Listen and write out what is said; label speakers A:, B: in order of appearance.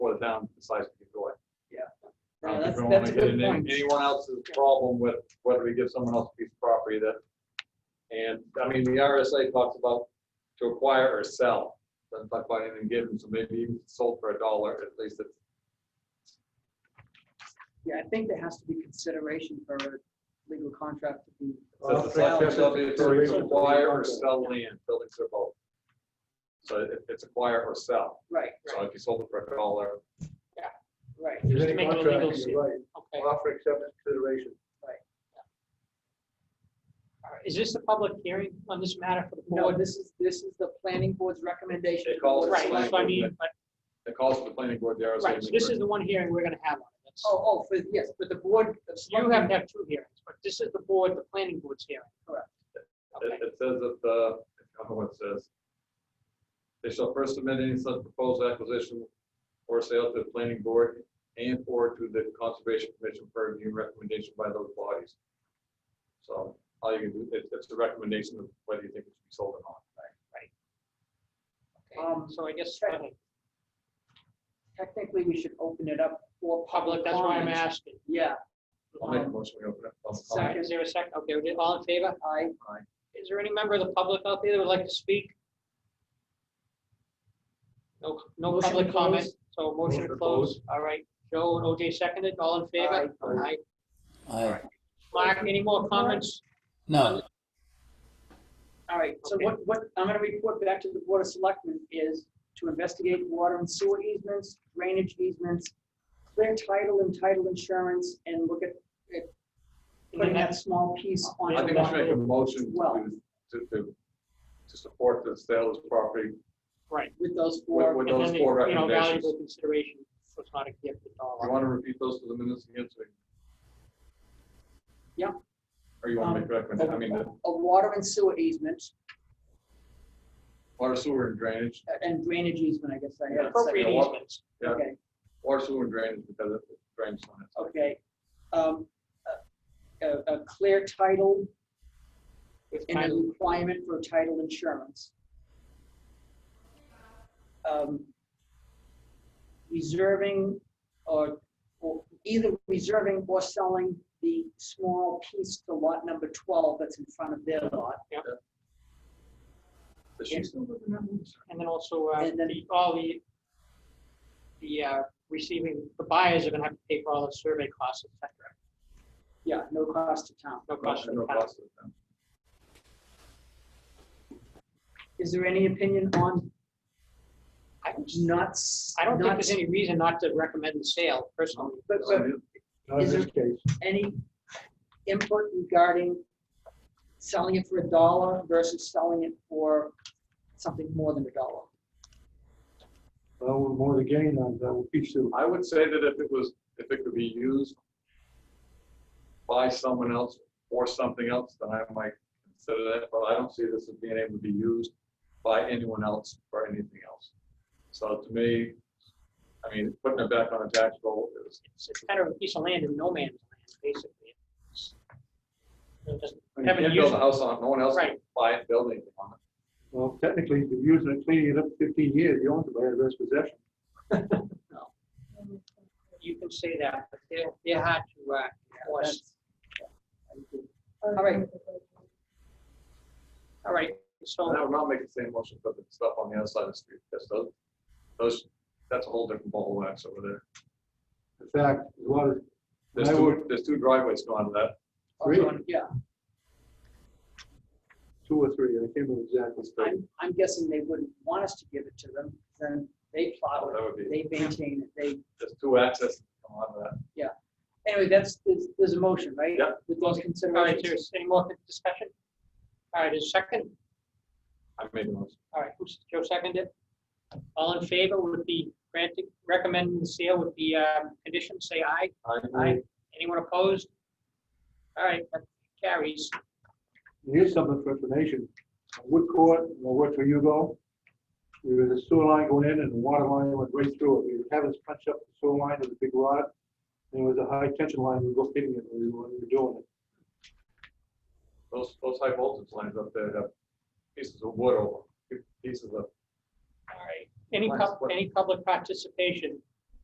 A: down the size of your door.
B: Yeah,
A: Um,
B: Oh, that's,
A: we don't
B: that's
A: wanna get
B: a good
A: into
B: point.
A: Anyone else's problem with whether we give someone else a piece of property that, and, I mean, the RSA talks about to acquire or sell, doesn't talk about anything given, so maybe even sold for a dollar, at least it's,
B: Yeah, I think there has to be consideration for a legal contract to be.
A: says the select board shall be authority to acquire or sell land, buildings or both. So it- it's acquire or sell,
B: Right,
A: so
B: right,
A: if you sold it for a dollar,
B: right.
C: Just
D: Any
C: make it a
D: contract,
C: legal
D: you're
C: suit.
D: right.
C: Okay,
D: Offer acceptance consideration.
C: all right. is this the public hearing on this matter for the
B: No,
C: board?
B: this is, this is the planning board's recommendation.
A: They call it
B: to the
C: Right,
B: select-
C: that's what I mean, but,
A: it calls for the planning board, the RSA.
C: right, so this is the one hearing we're gonna have on it. That's-
B: Oh, oh, for, yes, but the board. the select-
C: You have to have two hearings, but this is the board, the planning board's hearing.
B: Correct.
C: Okay.
A: It, it says that the, I don't know what it says. They shall first submit any such proposed acquisition or sale to the planning board and or to the conservation commission for review and recommendation by those bodies. So all you can do, it, it's the recommendation of whether you think it should be sold or not.
B: Um,
C: So I guess, uh,
B: Right. Technically, we should open it up for
C: public, that's why I'm
B: comments.
C: asking.
B: Yeah,
A: I'll make a
C: Um,
A: motion, we open up. public
C: all right,
A: comment.
C: Is there a second? Okay, we did, all in favor?
B: I,
C: Is there any member of the public out there that would like to speak? No, no
B: Motion to
C: public comment,
B: close.
C: so motion to close. All right, Joe and OJ seconded, all in favor? Aye.
E: Aye.
C: Mark, any more comments?
E: No,
B: all right, so
C: Okay.
B: what, what, I'm gonna report back to the board of selectmen is to investigate water and sewer easements, drainage easements, clear title and title insurance, and look at putting that small piece on.
A: Mm-hmm. I think we should make a motion
B: Well.
A: to, to, to, to support the sale of this property
C: Right.
B: With those
A: with,
B: four,
A: with
C: And
A: those
C: then the,
A: four
C: you know,
A: recommendations.
C: Valuable consideration, so it's not a gift at
A: You
C: all.
A: want to repeat those to the minutes again? so we-
B: Yeah. Um,
A: Or you want to make
B: a
A: recommend, I mean, the
B: a water and sewer easement
A: water sewer and drainage,
B: uh, and drainage easement, I guess I had.
C: Appropriate
A: Yeah.
C: easements.
A: yeah.
B: Okay.
A: water sewer and drainage because it drains on it.
B: okay, um, a, a- a clear title
C: with
B: and a
C: title.
B: requirement for title insurance. Um, Reserving or, or either reserving or selling the small piece to lot number twelve that's in front of their lot.
A: Does she still live in that one?
C: And then also, uh,
B: And then-
C: the- all the, the uh, receiving, the buyers are gonna have to pay for all the survey costs, et cetera.
B: Yeah, no cost to town.
C: No cost to the
A: No
C: town.
A: cost to the town.
B: Is there any opinion on
C: I don't-
B: not? s-
C: I don't think
B: not
C: there's any reason not to recommend the sale personally.
B: But,
A: So, I
B: but
A: mean,
D: Not in
B: Is
D: this case.
B: any input regarding selling it for a dollar versus selling it for something more than a dollar?
D: Well, we're more the gain on that will be soon.
A: I would say that if it was, if it could be used by someone else or something else, then I might consider that, but I don't see this as being able to be used by anyone else or anything else. So to me, I mean, putting it back on a tax roll is
C: It's it's kind of a piece of land in no man's land, basically. It's- it doesn't-
A: I mean, You can't build a house on it, no one else can
C: Right.
A: buy it, build anything on it.
D: Well, technically, if you're using it, cleaning it up fifteen years, you own it by adverse possession.
C: You can say that, but they're, they're hard to, uh, enforce.
B: That's- yeah, I agree.
C: Um,
B: All right,
C: All right, so.
A: And I would not make the same motion for the stuff on the other side of the street, because those, those, that's a whole different ball of wax over there.
D: In fact, a lot of,
A: There's
D: I
A: two,
D: would-
A: there's two driveways going to that.
D: Really?
B: yeah,
D: two or three, I can't remember exactly.
B: I'm, I'm guessing they wouldn't want us to give it to them, then they plow
A: That would
B: it,
A: be,
B: they maintain it, they,
A: there's two accesses come out of that.
B: anyway, that's, there's, there's a motion, right?
A: Yeah.
B: With those
C: All right,
B: considerations.
C: there's any more discussion? All right, is second?
A: I made the motion.
C: All right, who's, Joe seconded? All in favor would be granting, recommending the sale with the um, conditions, say aye. Aye. Anyone opposed? All right, that carries.
D: Here's something for information. On Wood Court, I worked for Hugo. There was a sewer line going in and the water line went right through it. We were having us punch up the sewer line with a big rod. And it was a high tension line, we were hitting it when we were we were doing it.
A: Those, those high voltage lines up there have pieces of wood over, them, pieces of,
C: All right. Any, pub- any public participation